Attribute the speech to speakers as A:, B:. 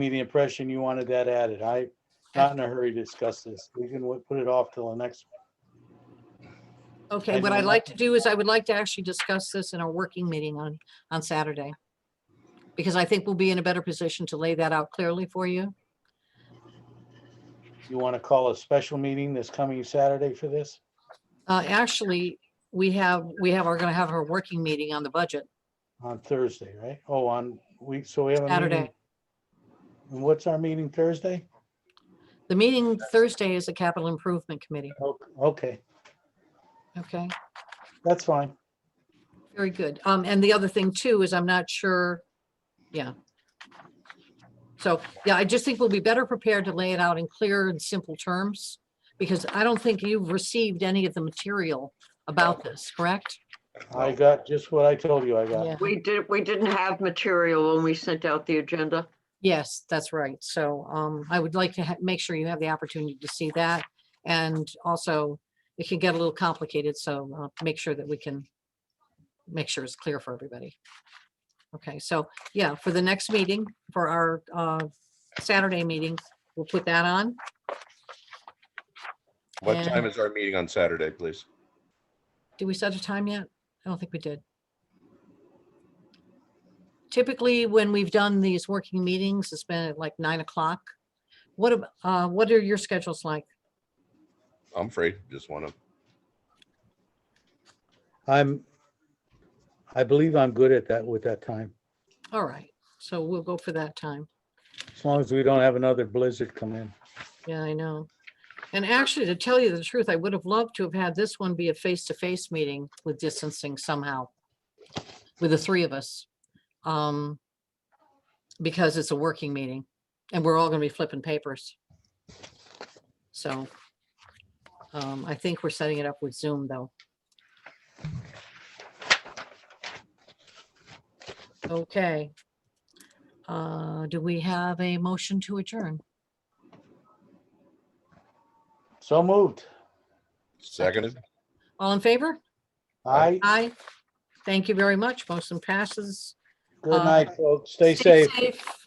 A: me the impression you wanted that added. I, not in a hurry to discuss this. We can w- put it off till the next.
B: Okay,
A: Anyone
B: what I'd
A: like
B: like to do is I would like to actually discuss this in our working meeting on, on Saturday. Because I think we'll be in a better position to lay that out clearly for you.
A: You want to call a special meeting this coming Saturday for this?
B: Uh, actually, we have, we have, are gonna have our working meeting on the budget
A: On Thursday, right? Oh, on week, so we have a meeting.
B: Saturday.
A: And what's our meeting Thursday?
B: The meeting Thursday is the capital improvement committee,
A: O- Okay,
B: okay?
A: that's fine.
B: Very good. Um, and the other thing too is I'm not sure, yeah. So, yeah, I just think we'll be better prepared to lay it out in clear and simple terms because I don't think you've received any of the material about this, correct?
A: I got just what I told you I got.
B: Yeah,
C: We did, we didn't have material when we sent out the agenda.
B: yes, that's right. So, um, I would like to ha- make sure you have the opportunity to see that. And also it can get a little complicated, so, uh, make sure that we can make sure it's clear for everybody. Okay, so, yeah, for the next meeting, for our, uh, Saturday meeting, we'll put that on.
D: What time
B: And-
D: is our meeting on Saturday, please?
B: Did we set a time yet? I don't think we did. Typically, when we've done these working meetings, it's been at like nine o'clock. What, ab- uh, what are your schedules like?
D: I'm free. Just want to,
A: I'm, I believe I'm good at that with that time,
B: All right, so we'll go for that time.
A: as long as we don't have another blizzard come in.
B: Yeah, I know. And actually, to tell you the truth, I would have loved to have had this one be a face-to-face meeting with distancing somehow with the three of us. Um, because it's a working meeting and we're all gonna be flipping papers. So um, I think we're setting it up with Zoom though. Okay. Uh, do we have a motion to adjourn?
A: So moved.
D: seconded.
B: All in favor?
A: I,
B: Aye. Thank you very much. Motion passes.
A: good
B: Uh,
A: night, folks. Stay safe.